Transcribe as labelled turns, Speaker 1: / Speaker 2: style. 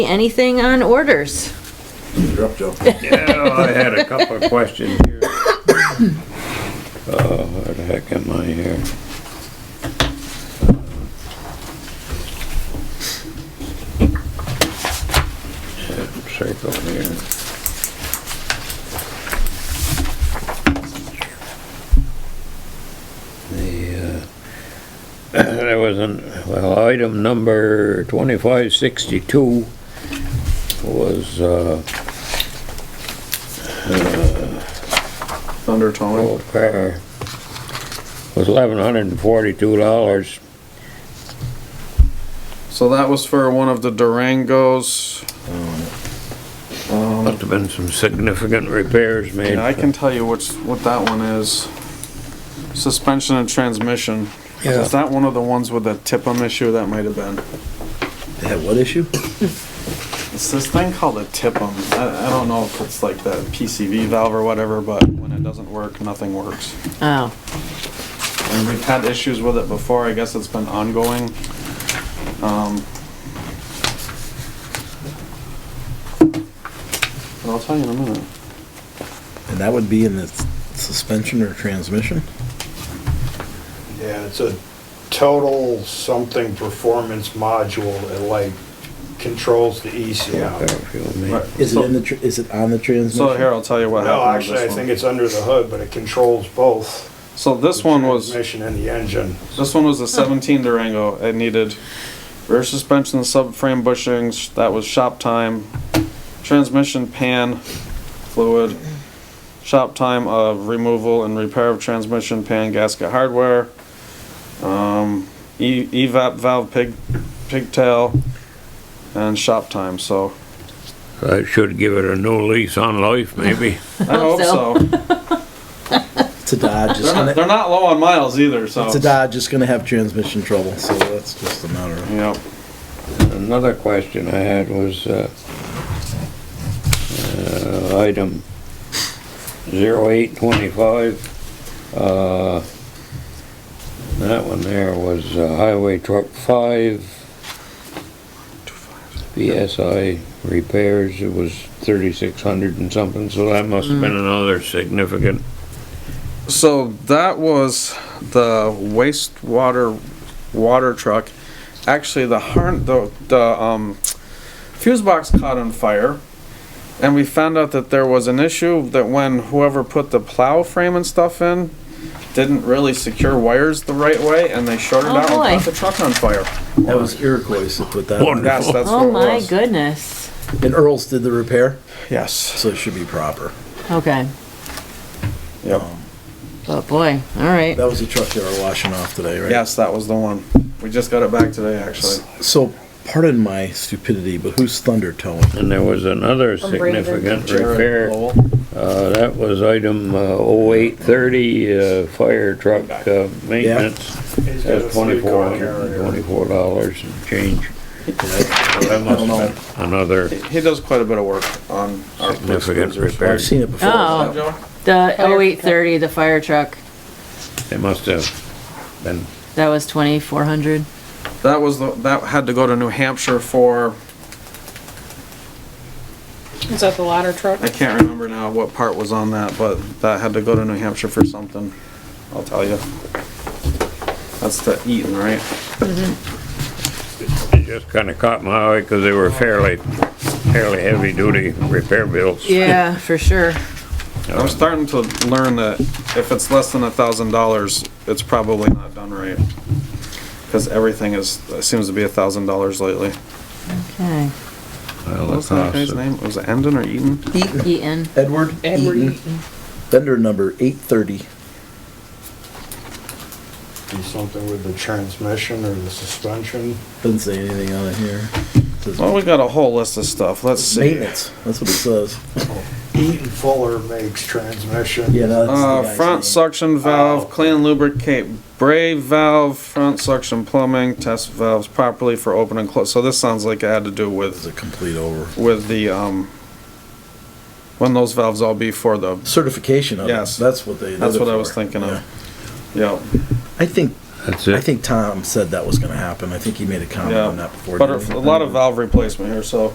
Speaker 1: Anything on orders?
Speaker 2: You're up, Joe.
Speaker 3: Yeah, I had a couple of questions here. Uh, where the heck am I here? Circle here. The, uh, there was an, well, item number twenty-five sixty-two was, uh,
Speaker 2: Thundertone.
Speaker 3: Old car was eleven hundred and forty-two dollars.
Speaker 2: So that was for one of the Durangos.
Speaker 3: Must have been some significant repairs made.
Speaker 2: Yeah, I can tell you which, what that one is. Suspension and transmission.
Speaker 3: Yeah.
Speaker 2: Is that one of the ones with the tip-em issue? That might have been.
Speaker 4: They had what issue?
Speaker 2: It's this thing called a tip-em. I, I don't know if it's like the PCV valve or whatever, but when it doesn't work, nothing works.
Speaker 1: Oh,
Speaker 2: And we've had issues with it before, I guess it's been ongoing. Um, But I'll tell you in a minute.
Speaker 4: And that would be in the s- suspension or transmission?
Speaker 5: Yeah, it's a total something performance module that like controls the E
Speaker 3: Repair
Speaker 5: ECM.
Speaker 3: fuel made.
Speaker 2: Right.
Speaker 4: Is
Speaker 2: So-
Speaker 4: it in the, tr- is it on the transmission?
Speaker 2: So here, I'll tell you what
Speaker 5: No,
Speaker 2: happened with
Speaker 5: actually, I
Speaker 2: this
Speaker 5: think
Speaker 2: one.
Speaker 5: it's under the hood, but it controls both.
Speaker 2: So this
Speaker 5: the
Speaker 2: one was,
Speaker 5: Transmission and the engine.
Speaker 2: this one was a seventeen Durango, it needed rear suspension, subframe bushings, that was shop time, transmission pan fluid, shop time of removal and repair of transmission pan gasket hardware, um, E, EVAP valve pig, pigtail, and shop time, so.
Speaker 3: I should give it a new lease on life, maybe.
Speaker 2: I
Speaker 1: Hope
Speaker 2: hope
Speaker 1: so.
Speaker 2: so.
Speaker 4: It's a Dodge, it's
Speaker 2: They're not,
Speaker 4: gonna,
Speaker 2: they're not low on miles either, so.
Speaker 4: it's a Dodge, it's gonna have transmission trouble, so that's just a matter of.
Speaker 2: Yep.
Speaker 3: Another question I had was, uh, uh, item zero eight twenty-five. Uh, that one there was uh, Highway Truck Five. BSI repairs, it was thirty-six hundred and something, so that must have been another significant.
Speaker 2: So that was the wastewater water truck. Actually, the harn the the um, fuse box caught on fire, and we found out that there was an issue that when whoever put the plow frame and stuff in didn't really secure wires the right way, and they shorted
Speaker 1: Oh,
Speaker 2: out
Speaker 1: boy.
Speaker 2: and caught the truck on fire.
Speaker 4: That was Iroquois that put that on.
Speaker 2: Yes, that's what
Speaker 1: oh
Speaker 2: it
Speaker 1: my
Speaker 2: was.
Speaker 1: goodness.
Speaker 4: And Earl's did the repair,
Speaker 2: Yes.
Speaker 4: so it should be proper.
Speaker 1: Okay,
Speaker 2: Yep.
Speaker 1: oh boy, all right.
Speaker 4: That was the truck they were washing off today, right?
Speaker 2: Yes, that was the one. We just got it back today, actually.
Speaker 4: So, pardon my stupidity, but who's Thunder towing?
Speaker 3: And there was another significant repair. Uh, that was item oh eight thirty, uh, fire truck, uh, maintenance.
Speaker 5: It's got a
Speaker 3: That's
Speaker 5: three-car
Speaker 3: twenty-four hundred and
Speaker 5: carrier.
Speaker 3: twenty-four dollars and change. So That must have been another
Speaker 2: He- He does quite a bit of work on our police
Speaker 3: significant
Speaker 2: cruisers.
Speaker 3: repair.
Speaker 4: I've seen it before.
Speaker 1: Oh.
Speaker 2: Right, Joe?
Speaker 1: The 0830, the fire truck,
Speaker 3: It must have been,
Speaker 1: that was 2,400.
Speaker 2: That was the, that had to go to New Hampshire for,
Speaker 6: Is that the ladder truck?
Speaker 2: I can't remember now what part was on that, but that had to go to New Hampshire for something. I'll tell you. That's the Eaton, right?
Speaker 3: it just kinda caught my eye because they were fairly, fairly heavy-duty repair bills.
Speaker 1: Yeah, for sure.
Speaker 2: I'm starting to learn that if it's less than a thousand dollars, it's probably not done right. Cause everything is, seems to be a thousand dollars lately.
Speaker 1: Okay.
Speaker 3: Well,
Speaker 2: What
Speaker 3: the
Speaker 2: was that
Speaker 3: cost
Speaker 2: guy's
Speaker 3: of-
Speaker 2: name? Was it Endon or Eaton?
Speaker 1: Eaton,
Speaker 4: Edward
Speaker 6: Edward E.
Speaker 4: Eaton,
Speaker 6: Eaton.
Speaker 4: vendor number eight thirty.
Speaker 5: Do something with the transmission or the suspension.
Speaker 4: Doesn't say anything on it here. Says
Speaker 2: Well, we got a whole list of stuff. Let's see.
Speaker 4: Maintenance, that's what it says.
Speaker 5: Eaton Fuller makes transmission.
Speaker 4: Yeah, no, that's the
Speaker 2: Uh,
Speaker 4: guy's Oh, name.
Speaker 2: front suction valve, clean lubricate, brave valve, front suction plumbing, test valves properly for open and close. So this sounds like it had to do
Speaker 4: It's
Speaker 2: with,
Speaker 4: a complete over.
Speaker 2: with the, um, when those valves all be for the,
Speaker 4: Certification of it.
Speaker 2: Yes.
Speaker 4: That's what they.
Speaker 2: that's
Speaker 4: did it
Speaker 2: what I was
Speaker 4: for.
Speaker 2: thinking
Speaker 4: Yeah.
Speaker 2: of. Yeah,
Speaker 4: I think,
Speaker 3: That's
Speaker 4: I
Speaker 3: it.
Speaker 4: think Tom said that was gonna happen. I think he made a comment on
Speaker 2: yeah.
Speaker 4: that before.
Speaker 2: But
Speaker 4: didn't he?
Speaker 2: a lot of valve replacement here, so.